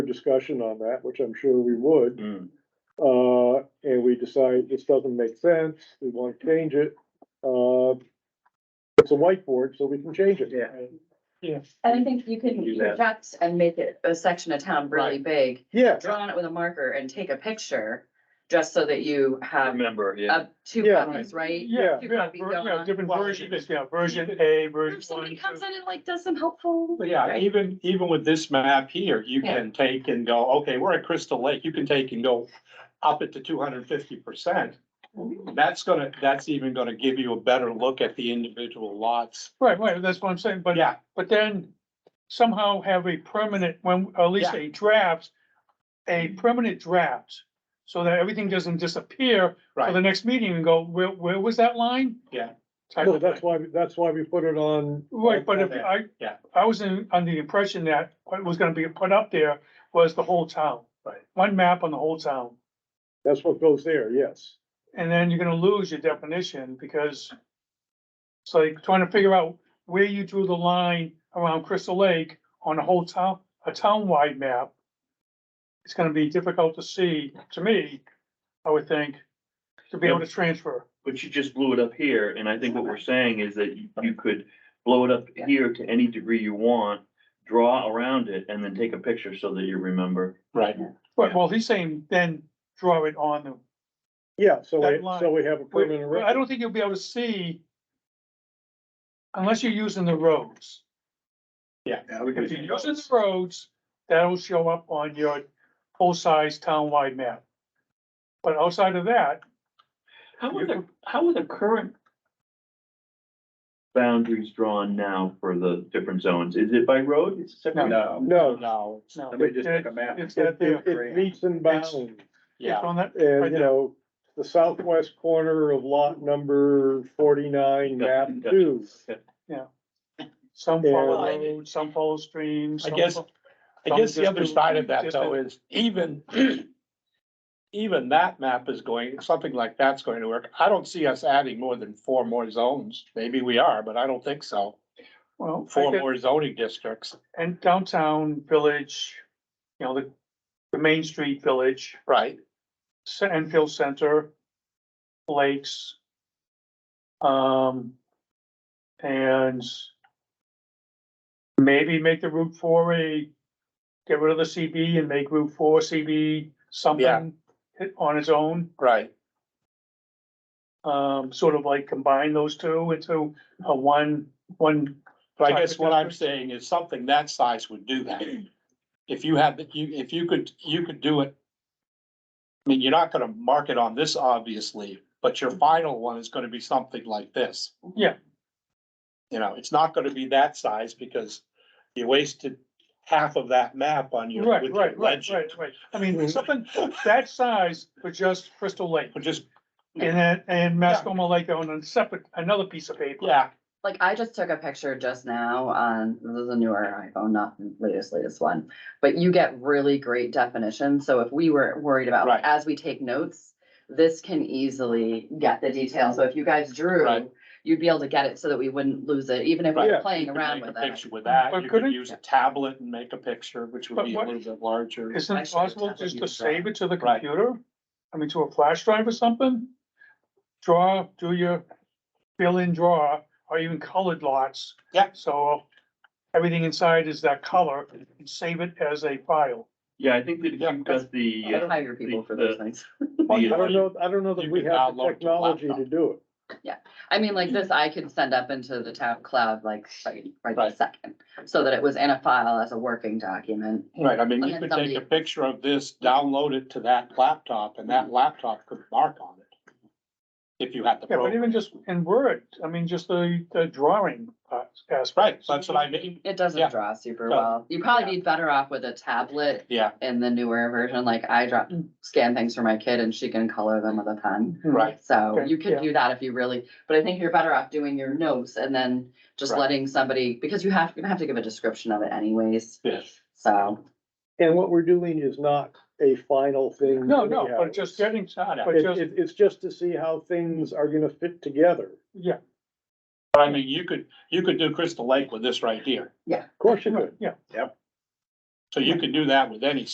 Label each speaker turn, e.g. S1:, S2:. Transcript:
S1: discussion on that, which I'm sure we would,
S2: Mm.
S1: uh, and we decide this doesn't make sense, we want to change it, uh, it's a whiteboard, so we can change it.
S2: Yeah.
S3: Yes.
S4: And I think you can
S2: Do that.
S4: project and make it a section of town really big,
S1: Yeah,
S4: draw on it with a marker and take a picture, just so that you have
S2: Remember, yeah.
S4: uh, two
S1: Yeah.
S4: copies, right?
S3: Yeah,
S4: Two
S3: yeah, ver-
S4: copies going
S3: yeah,
S4: on.
S3: different versions, yeah, version A, version
S4: If somebody
S3: one.
S4: comes
S3: two.
S4: in and like does some helpful.
S3: But Yeah,
S4: right?
S3: even, even with this map here, you
S4: Yeah.
S3: can take and go, okay, we're at Crystal Lake, you can take and go up it to two hundred and fifty percent. That's gonna, that's even gonna give you a better look at the individual lots.
S5: Right, right, that's what I'm saying, but,
S3: Yeah,
S5: but then somehow have a permanent, when, at least a draft, a permanent draft, so that everything doesn't disappear for the
S3: right,
S5: next meeting and go, where, where was that line?
S3: Yeah.
S5: Type
S1: no,
S5: of
S1: that's
S5: thing.
S1: why, that's why we put it on.
S5: Right, but if
S3: Okay.
S5: I,
S3: Yeah.
S5: I was in, under the impression that what was gonna be put up there was the whole town.
S3: Right.
S5: One map on the whole town,
S1: That's what goes there, yes.
S5: and then you're gonna lose your definition, because it's like trying to figure out where you drew the line around Crystal Lake on a whole town, a town-wide map. It's gonna be difficult to see, to me, I would think, to be able to transfer.
S2: But you just blew it up here, and I think what we're saying is that you- you could blow it up
S4: Yeah.
S2: here to any degree you want, draw around it, and then take a picture so that you remember.
S3: right.
S5: But, well, he's saying then draw it on the
S1: Yeah, so
S5: That
S1: we, so
S5: line.
S1: we have a permanent.
S5: Well, I don't think you'll be able to see. Unless you're using the roads.
S3: Yeah, we
S5: If you're using the roads, that'll show up on your full-size town-wide map. But outside of that,
S2: How are the, how are the current boundaries drawn now for the different zones? Is it by road? Is it separate?
S3: No.
S1: No.
S3: No.
S5: no,
S3: Somebody just
S5: took
S3: a map.
S5: it's that
S1: It,
S5: there.
S1: it- it meets and bounds,
S5: It's
S3: Yeah,
S5: on that,
S1: and
S5: Right
S1: you
S5: there.
S1: know, the southwest corner of lot number forty-nine, map
S2: Gotcha, gotcha.
S1: two.
S5: some
S1: Yeah.
S5: follow roads, some follow streams.
S3: I
S5: some
S3: guess-
S5: fo-
S3: I guess the
S5: Some
S3: other
S5: just do-
S3: side of that
S5: just
S3: though is even, even that map is going, something like that's going to work. I don't see us adding more than four more zones. Maybe we are, but I don't think so.
S5: Well, I
S3: Four
S5: get-
S3: more zoning districts,
S5: and downtown village, you know, the, the Main Street Village,
S3: right?
S5: Ce- Enfield Center, Lakes. Um, and maybe make the Route four a, get rid of the CB and make Route four CB something on its own.
S3: Right.
S5: Um, sort of like combine those two into a one, one,
S3: But I guess what I'm saying is something that size would do that. If you had, you, if you could, you could do it. I mean, you're not gonna mark it on this, obviously, but your final one is gonna be something like this.
S5: Yeah.
S3: You know, it's not gonna be that size because you wasted half of that map on your,
S5: right,
S3: with your
S5: right, right,
S3: legend. Mm-hmm.
S5: right, right. I mean, something that size for just Crystal Lake.
S3: But just,
S5: And then, and Mascoma Lake on a separate, another piece of paper.
S3: yeah,
S4: Like I just took a picture just now on, this is a newer iPhone, not the latest, latest one. But you get really great definitions. So if we were worried about,
S3: Right.
S4: as we take notes, this can easily get the detail. So if you guys
S3: Right.
S4: drew, you'd be able to get it so that we wouldn't lose it, even if we
S1: Right.
S4: we're playing
S3: you could
S4: around
S3: make a
S4: with it.
S3: Picture with that,
S5: But
S3: you
S5: couldn't-
S3: could use a tablet and make a picture, which would
S5: But
S3: be a
S5: what-
S3: little bit larger.
S5: Isn't
S4: I
S5: it
S4: should have
S5: possible
S4: done
S5: just
S4: that.
S5: to save it to the
S3: Right.
S5: computer? I mean, to a flash drive or something? Draw, do your fill in draw, or even colored lots.
S3: Yeah.
S5: So everything inside is that color, and save it as a file.
S2: Yeah, I think that if you've got the. uh,
S4: I hire people for those things.
S1: I don't know, I don't know that
S3: You
S1: we
S3: can
S1: have the
S3: download to
S1: technology to
S3: laptop.
S1: do it.
S4: I mean, like this, I could send up into the town cloud like right, right
S3: Right.
S4: this second, so that it was in a file as a working document.
S3: Right, I mean, you
S4: And then
S3: could take a
S4: somebody-
S3: picture of this, download it to that laptop, and that laptop could mark on it. If you had the
S5: Yeah, but
S3: program,
S5: even just in Word, I mean, just the, the drawing uh, aspect.
S3: right, that's what I mean,
S4: It
S3: Yeah.
S4: doesn't draw super
S3: Doesn't.
S4: well. You'd probably be better off with a tablet
S3: yeah,
S4: in the newer version, like I drop, scan things for my kid and she can color them with a pen.
S3: right,
S4: So
S5: Okay,
S4: you could
S5: yeah.
S4: do that if you really, but I think you're better off doing your notes and then just
S3: Right.
S4: letting somebody, because you have, you're gonna have to give a description of it anyways,
S3: yes,
S4: so.
S1: And what we're doing is not a final thing.
S5: No, no,
S1: anyhow.
S5: but just getting,
S3: I know.
S5: but
S1: It,
S5: just-
S1: it- it's just to see how things are gonna fit together.
S5: yeah,
S3: but I mean, you could, you could do Crystal Lake with this right here.
S1: Of course you could.
S5: yeah.
S3: So you could do that with any